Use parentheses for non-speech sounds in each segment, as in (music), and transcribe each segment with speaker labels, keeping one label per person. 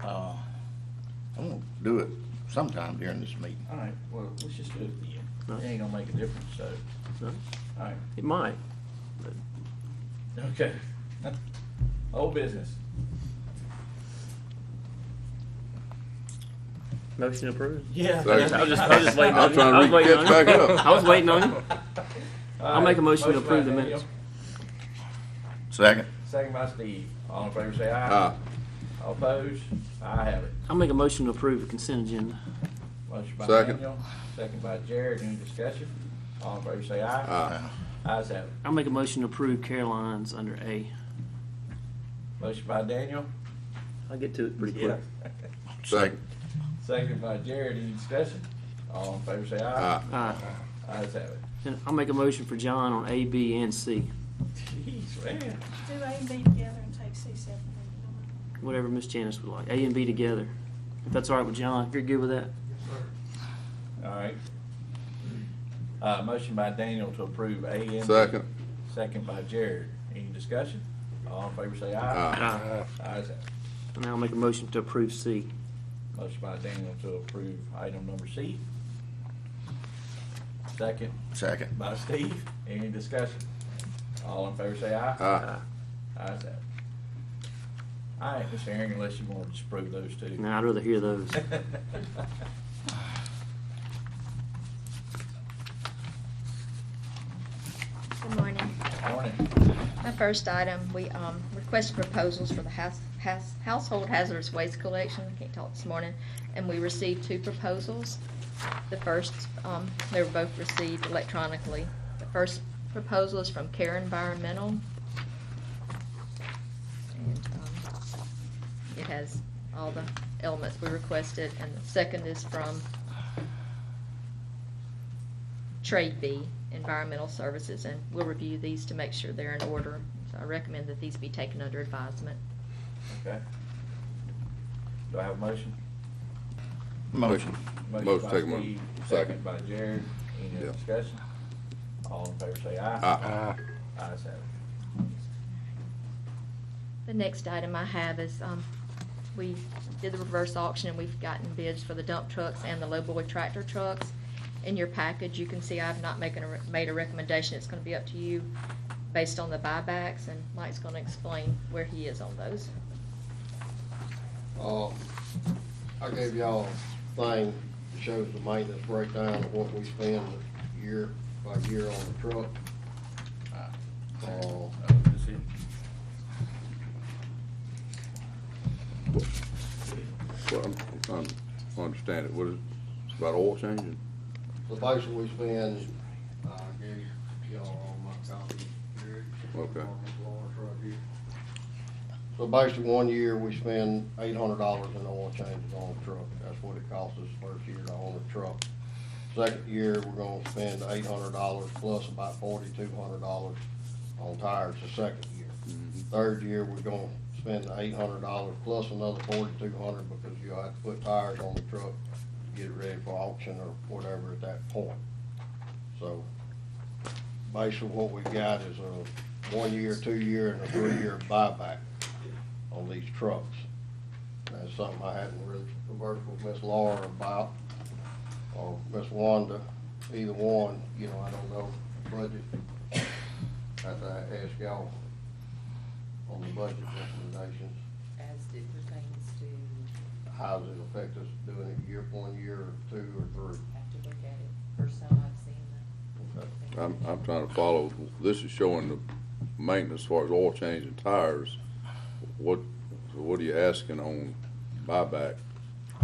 Speaker 1: Uh, I'm gonna do it sometime during this meeting.
Speaker 2: All right, well, let's just do it then. It ain't gonna make a difference, so,
Speaker 3: No,
Speaker 2: all right,
Speaker 3: It might. but
Speaker 2: okay. (laughs) Old business.
Speaker 3: Motion approved.
Speaker 2: Yeah.
Speaker 4: Second.
Speaker 3: I was just, I was just waiting on
Speaker 4: I'm
Speaker 3: you.
Speaker 4: trying to
Speaker 3: I was
Speaker 4: read
Speaker 3: waiting
Speaker 4: catch
Speaker 3: on
Speaker 4: back
Speaker 3: you.
Speaker 4: up.
Speaker 3: I was waiting on you.
Speaker 2: I'll
Speaker 3: make a motion to approve the minutes.
Speaker 1: Second.
Speaker 2: Second by Steve, all in favor say aye.
Speaker 4: Ah,
Speaker 2: All opposed, I have it.
Speaker 3: I'll make a motion to approve the consent agenda.
Speaker 2: Motion by
Speaker 4: Second.
Speaker 2: Daniel, second by Jared, any discussion? All in favor say aye.
Speaker 4: ah,
Speaker 1: Uh,
Speaker 2: Ayes have it.
Speaker 3: I'll make a motion to approve Caroline's under A.
Speaker 2: Motion by Daniel.
Speaker 3: I'll get to it pretty quick.
Speaker 4: second,
Speaker 2: (laughs) Second by Jared, any discussion? All in favor say aye.
Speaker 4: ah,
Speaker 3: All right.
Speaker 2: Ayes have it.
Speaker 3: And I'll make a motion for John on A, B, and C,
Speaker 2: Jeez, man.
Speaker 5: Do A and B together and take C separately.
Speaker 3: whatever Miss Janice would like, A and B together. If that's all right with John, if you're good with that?
Speaker 2: All right. Uh, motion by Daniel to approve A and B.
Speaker 4: second,
Speaker 2: Second by Jared. Any discussion? All in favor say aye.
Speaker 4: ah,
Speaker 3: Uh,
Speaker 2: Ayes have it.
Speaker 3: And I'll make a motion to approve C.
Speaker 2: Motion by Daniel to approve item number C. Second
Speaker 1: Second.
Speaker 2: by Steve. Any discussion? All in favor say aye.
Speaker 4: ah,
Speaker 2: Ayes have it. All right, Mr. Herring, unless you want to disapprove those two.
Speaker 3: Now, I'd rather hear those.
Speaker 6: Good morning.
Speaker 2: (laughs) Morning.
Speaker 6: My first item, we um, requested proposals for the house- house- household hazardous waste collection, I can't talk this morning, and we received two proposals. The first, um, they were both received electronically. The first proposal is from Care Environmental. And um, It has all the elements we requested, and the second is from trade B, environmental services, and we'll review these to make sure they're in order. So I recommend that these be taken under advisement.
Speaker 2: Okay. Do I have a motion?
Speaker 1: Motion.
Speaker 4: Motion
Speaker 2: by
Speaker 4: to take a mo-
Speaker 2: Steve, Second
Speaker 4: second.
Speaker 2: by Jared. Any
Speaker 4: Yeah.
Speaker 2: other discussion? All in favor say aye.
Speaker 4: ah,
Speaker 2: Ayes have it.
Speaker 6: The next item I have is, um, we did the reverse auction, and we've gotten bids for the dump trucks and the lowboy tractor trucks. In your package, you can see I've not making a, re- made a recommendation, it's gonna be up to you based on the buybacks, and Mike's gonna explain where he is on those.
Speaker 7: Uh, I gave y'all a thing that shows the maintenance breakdown of what we spend year by year on the truck. Uh,
Speaker 2: Oh, that's it.
Speaker 4: well, I'm I'm trying to understand it, what is, it's about oil changing?
Speaker 7: The basically we spend, uh, I gave y'all all my copies. Eric,
Speaker 4: Okay.
Speaker 7: on this large right here. So basically, one year, we spend eight hundred dollars in oil changes on the truck. That's what it costs us first year to own a truck. Second year, we're gonna spend eight hundred dollars plus about forty-two hundred dollars on tires the second year. Third year, we're gonna spend eight hundred dollars plus another forty-two hundred dollars because you'll have to put tires on the truck, to get it ready for auction or whatever at that point. So basically what we got is a one-year, two-year, and a three-year buyback on these trucks. That's something I hadn't really conversed with Miss Laura about, or Miss Wanda, either one, you know, I don't know, budget. Have to ask y'all on the budget recommendations,
Speaker 8: as it pertains to,
Speaker 7: how does it affect us doing it year, one year, or two, or three?
Speaker 8: have to look at it, first time I've seen that.
Speaker 7: Okay.
Speaker 4: I'm, I'm trying to follow, this is showing the maintenance as far as oil change and tires. What, what are you asking on buyback?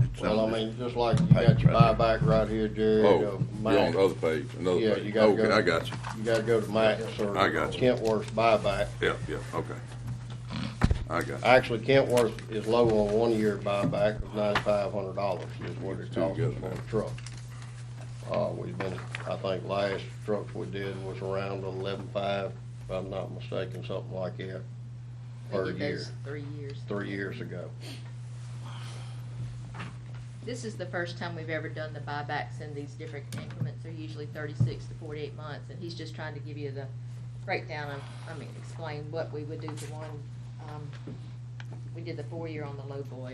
Speaker 1: It's
Speaker 7: Well, I
Speaker 1: on this-
Speaker 7: mean, just like you got your buyback right here, Jerry.
Speaker 4: Oh,
Speaker 7: uh,
Speaker 4: you're on
Speaker 7: Max.
Speaker 4: the other page, another
Speaker 7: Yeah, you
Speaker 4: page,
Speaker 7: gotta go.
Speaker 4: okay, I got you,
Speaker 7: You gotta go to Max or
Speaker 4: I got you.
Speaker 7: Kentworth's buyback.
Speaker 4: yeah, yeah, okay. I got you.
Speaker 7: Actually, Kentworth is low on one-year buyback of ninety-five hundred dollars is what it
Speaker 4: Two
Speaker 7: costs us
Speaker 4: together now.
Speaker 7: for a truck. Uh, we've been, I think last truck we did was around eleven-five, if I'm not mistaken, something like that,
Speaker 6: We
Speaker 7: per
Speaker 6: did
Speaker 7: year,
Speaker 6: those Three years.
Speaker 7: three years ago.
Speaker 6: This is the first time we've ever done the buybacks in these different increments. They're usually thirty-six to forty-eight months, and he's just trying to give you the breakdown of, I mean, explain what we would do for one. um, We did the four-year on the low boy,